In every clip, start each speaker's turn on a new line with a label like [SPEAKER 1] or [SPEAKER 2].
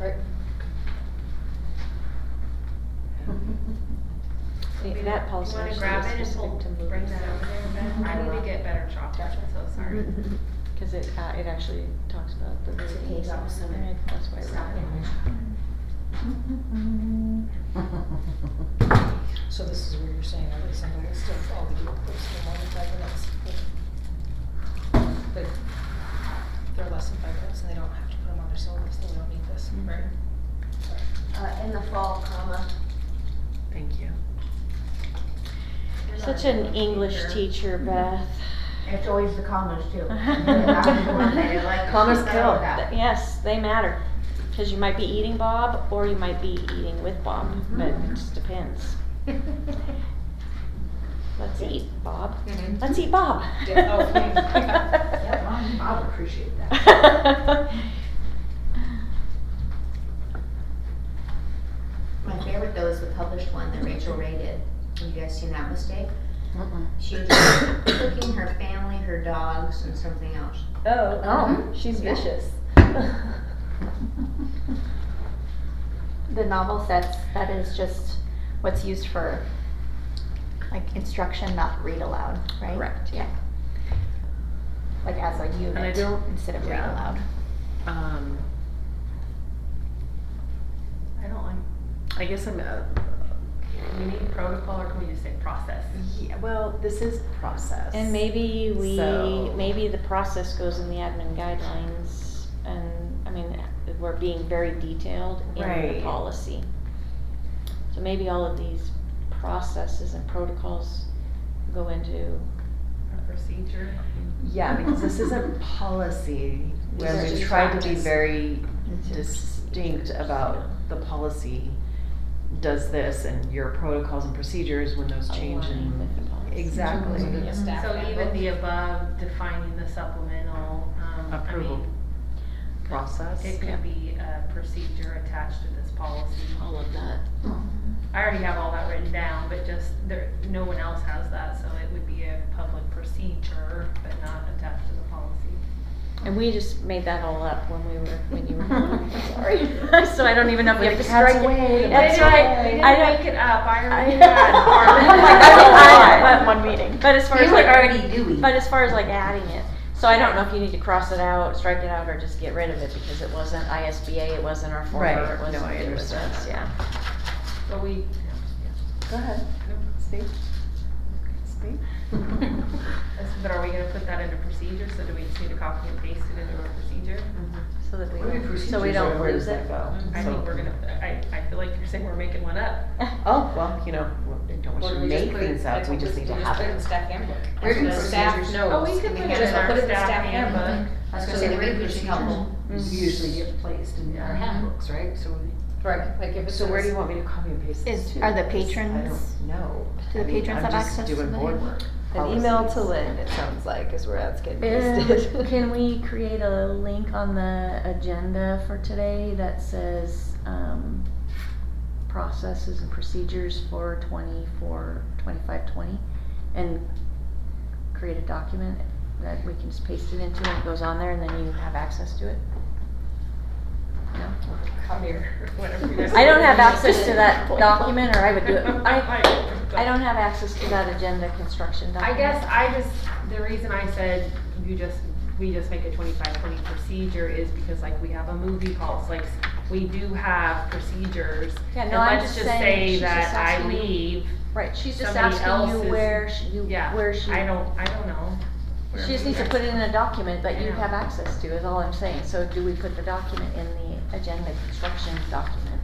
[SPEAKER 1] Right.
[SPEAKER 2] We-
[SPEAKER 1] That policy
[SPEAKER 2] You wanna
[SPEAKER 1] actually
[SPEAKER 2] grab
[SPEAKER 1] is
[SPEAKER 2] it and
[SPEAKER 1] specific
[SPEAKER 2] hold-
[SPEAKER 1] to
[SPEAKER 2] bring
[SPEAKER 1] movies.
[SPEAKER 2] that over there, Ben? I need to get better chopped, I'm so sorry.
[SPEAKER 1] Because it, uh, it actually talks about the.
[SPEAKER 3] It's a
[SPEAKER 1] movies.
[SPEAKER 3] page off, so
[SPEAKER 1] Alright, That's why I
[SPEAKER 3] Stop
[SPEAKER 1] read
[SPEAKER 3] it.
[SPEAKER 4] So this is where you're saying, every single list of all the group groups for more than five minutes. But they're less than five minutes and they don't have to put them on their syllabus, then we don't need this,
[SPEAKER 2] Mm-hmm.
[SPEAKER 4] right?
[SPEAKER 3] Uh, in the fall, comma.
[SPEAKER 2] Thank you.
[SPEAKER 1] it. Such an English teacher, Beth.
[SPEAKER 3] It's always the commas too.
[SPEAKER 1] Commas kill. Yes, they matter. Because you might be eating Bob or you might be eating with Bob, but
[SPEAKER 2] Mm-hmm.
[SPEAKER 1] it just depends. Let's eat Bob.
[SPEAKER 2] Mhm.
[SPEAKER 1] Let's eat Bob.
[SPEAKER 2] Yeah, oh,
[SPEAKER 3] Yeah, Mom, I'll appreciate that. My favorite though is the published one that Rachel Ray did. Have you guys seen that mistake? She was cooking her family, her dogs, and something else.
[SPEAKER 1] Oh,
[SPEAKER 3] Oh.
[SPEAKER 1] she's
[SPEAKER 3] Yeah.
[SPEAKER 1] vicious.
[SPEAKER 5] The novel sets, that is just what's used for like instruction, not read aloud, right?
[SPEAKER 1] Correct,
[SPEAKER 5] yeah. Like as a
[SPEAKER 2] I
[SPEAKER 5] unit
[SPEAKER 2] don't-
[SPEAKER 5] instead of read
[SPEAKER 2] yeah.
[SPEAKER 5] aloud.
[SPEAKER 2] Um, I don't like, I guess I'm, uh, we need protocol or can we just say process?
[SPEAKER 6] Yeah, well, this is process.
[SPEAKER 1] And maybe we,
[SPEAKER 6] So-
[SPEAKER 1] maybe the process goes in the admin guidelines and, I mean, we're being very detailed in the
[SPEAKER 6] Right.
[SPEAKER 1] policy. So maybe all of these processes and protocols go into,
[SPEAKER 2] Or procedure?
[SPEAKER 6] Yeah, because this isn't policy where
[SPEAKER 1] These are
[SPEAKER 6] we
[SPEAKER 1] just
[SPEAKER 6] try to be
[SPEAKER 1] practice.
[SPEAKER 6] very distinct about the policy does this and your protocols and procedures when those change
[SPEAKER 1] Align with the
[SPEAKER 6] and.
[SPEAKER 1] policy.
[SPEAKER 6] Exactly.
[SPEAKER 4] So the staff
[SPEAKER 2] So even
[SPEAKER 4] handbook.
[SPEAKER 2] the above defining the supplemental, um, I
[SPEAKER 6] Approval.
[SPEAKER 2] mean,
[SPEAKER 6] Process.
[SPEAKER 2] it could be a procedure attached to this policy.
[SPEAKER 1] all of that.
[SPEAKER 2] I already have all that written down, but just there, no one else has that, so it would be a public procedure, but not attached to the policy.
[SPEAKER 1] And we just made that all up when we were, when you were, sorry. So I don't even know if we have to strike it. That's
[SPEAKER 2] I didn't-
[SPEAKER 1] right.
[SPEAKER 2] I didn't
[SPEAKER 1] I don't-
[SPEAKER 2] make it up. I
[SPEAKER 1] I-
[SPEAKER 2] already
[SPEAKER 1] I'm
[SPEAKER 2] had Harlan.
[SPEAKER 1] like, I don't know.
[SPEAKER 5] I had one meeting.
[SPEAKER 1] But as far as
[SPEAKER 3] You
[SPEAKER 1] like.
[SPEAKER 3] were already doing.
[SPEAKER 1] But as far as like adding it, so I don't know if you need to cross it out, strike it out, or just get rid of it because it wasn't ISBA, it wasn't our
[SPEAKER 6] Right.
[SPEAKER 1] former, it
[SPEAKER 6] No,
[SPEAKER 1] wasn't,
[SPEAKER 6] I
[SPEAKER 1] it was
[SPEAKER 6] understand
[SPEAKER 1] us,
[SPEAKER 6] that.
[SPEAKER 1] yeah.
[SPEAKER 2] But we,
[SPEAKER 6] Go ahead. Speak. Speak.
[SPEAKER 2] that's- but are we gonna put that into procedure? So do we just need to copy and paste it into our procedure?
[SPEAKER 1] So that we, don't- so we don't lose it.
[SPEAKER 2] I think we're gonna, I, I feel like you're saying we're making one up.
[SPEAKER 6] Oh, well, you know, we don't
[SPEAKER 4] Or
[SPEAKER 6] want
[SPEAKER 4] do
[SPEAKER 6] you to
[SPEAKER 4] we just
[SPEAKER 6] make
[SPEAKER 4] put it-
[SPEAKER 6] things
[SPEAKER 4] I
[SPEAKER 6] up, we
[SPEAKER 4] think
[SPEAKER 6] just need to have
[SPEAKER 4] Put it in
[SPEAKER 6] it.
[SPEAKER 4] staff handbook.
[SPEAKER 3] Where do
[SPEAKER 4] So the staff
[SPEAKER 3] procedures-
[SPEAKER 4] knows.
[SPEAKER 2] Oh, we could put it
[SPEAKER 4] Just
[SPEAKER 2] in our
[SPEAKER 4] put it in the
[SPEAKER 2] staff
[SPEAKER 4] staff
[SPEAKER 2] handbook.
[SPEAKER 4] handbook.
[SPEAKER 3] I was gonna say, the reading is helpful. Mm.
[SPEAKER 7] usually get placed in our handbooks, right? So we-
[SPEAKER 4] Right, like if it's.
[SPEAKER 6] So where do you want me to copy and paste this
[SPEAKER 5] Is-
[SPEAKER 6] to?
[SPEAKER 5] are the
[SPEAKER 6] Because I
[SPEAKER 5] patrons-
[SPEAKER 6] don't know.
[SPEAKER 5] do
[SPEAKER 6] I
[SPEAKER 5] the
[SPEAKER 6] mean,
[SPEAKER 5] patrons
[SPEAKER 6] I'm
[SPEAKER 5] have
[SPEAKER 6] just
[SPEAKER 5] access to
[SPEAKER 6] Doing
[SPEAKER 5] the
[SPEAKER 6] board work.
[SPEAKER 5] handbook?
[SPEAKER 7] An email to
[SPEAKER 6] Policies.
[SPEAKER 7] Lynn, it sounds like, is where that's getting
[SPEAKER 1] Um,
[SPEAKER 7] listed.
[SPEAKER 1] Can we create a link on the agenda for today that says, um, processes and procedures for twenty-four, twenty-five, twenty? And create a document that we can just paste it into and it goes on there and then you have access to it? No?
[SPEAKER 4] Come here, whatever. you guys-
[SPEAKER 1] I don't have access to that document or I would do it. I, I
[SPEAKER 2] I
[SPEAKER 1] don't have access to that agenda construction
[SPEAKER 2] I
[SPEAKER 1] document.
[SPEAKER 2] guess I just, the reason I said you just, we just make a twenty-five, twenty procedure is because like we have a movie policy, like we do have procedures.
[SPEAKER 1] Yeah,
[SPEAKER 2] And
[SPEAKER 1] no, I'm
[SPEAKER 2] let's
[SPEAKER 1] just
[SPEAKER 2] just
[SPEAKER 1] saying,
[SPEAKER 2] say
[SPEAKER 1] she's
[SPEAKER 2] that
[SPEAKER 1] just
[SPEAKER 2] I
[SPEAKER 1] asking you-
[SPEAKER 2] leave,
[SPEAKER 1] Right, she's just
[SPEAKER 2] somebody
[SPEAKER 1] asking
[SPEAKER 2] else's-
[SPEAKER 1] you where she, you,
[SPEAKER 2] yeah,
[SPEAKER 1] where she.
[SPEAKER 2] I don't, I don't know. where
[SPEAKER 1] She just
[SPEAKER 2] we
[SPEAKER 1] needs to
[SPEAKER 2] are.
[SPEAKER 1] put it in a document that you
[SPEAKER 2] Yeah.
[SPEAKER 1] have access to, is all I'm saying. So do we put the document in the agenda construction document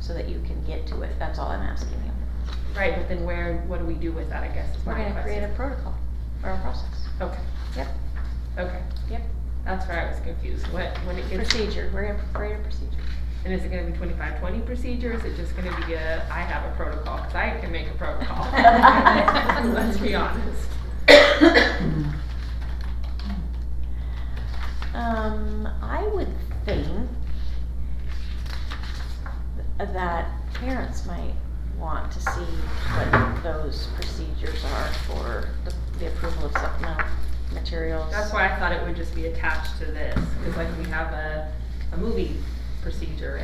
[SPEAKER 1] so that you can get to it? That's all I'm asking you.
[SPEAKER 2] Right, but then where, what do we do with that, I guess is
[SPEAKER 1] We're
[SPEAKER 2] my
[SPEAKER 1] gonna create a
[SPEAKER 2] question.
[SPEAKER 1] protocol or a process.
[SPEAKER 2] Okay.
[SPEAKER 1] Yep.
[SPEAKER 2] Okay.
[SPEAKER 1] Yep.
[SPEAKER 2] That's where I was confused, what, when it gets,
[SPEAKER 1] Procedure, we're gonna create a procedure.
[SPEAKER 2] and is it gonna be twenty-five, twenty procedure, is it just gonna be a, I have a protocol, cause I can make a protocol? Let's be honest.
[SPEAKER 1] Um, I would think that parents might want to see what those procedures are for the, the approval of supplemental materials.
[SPEAKER 2] That's why I thought it would just be attached to this, cause like we have a, a movie procedure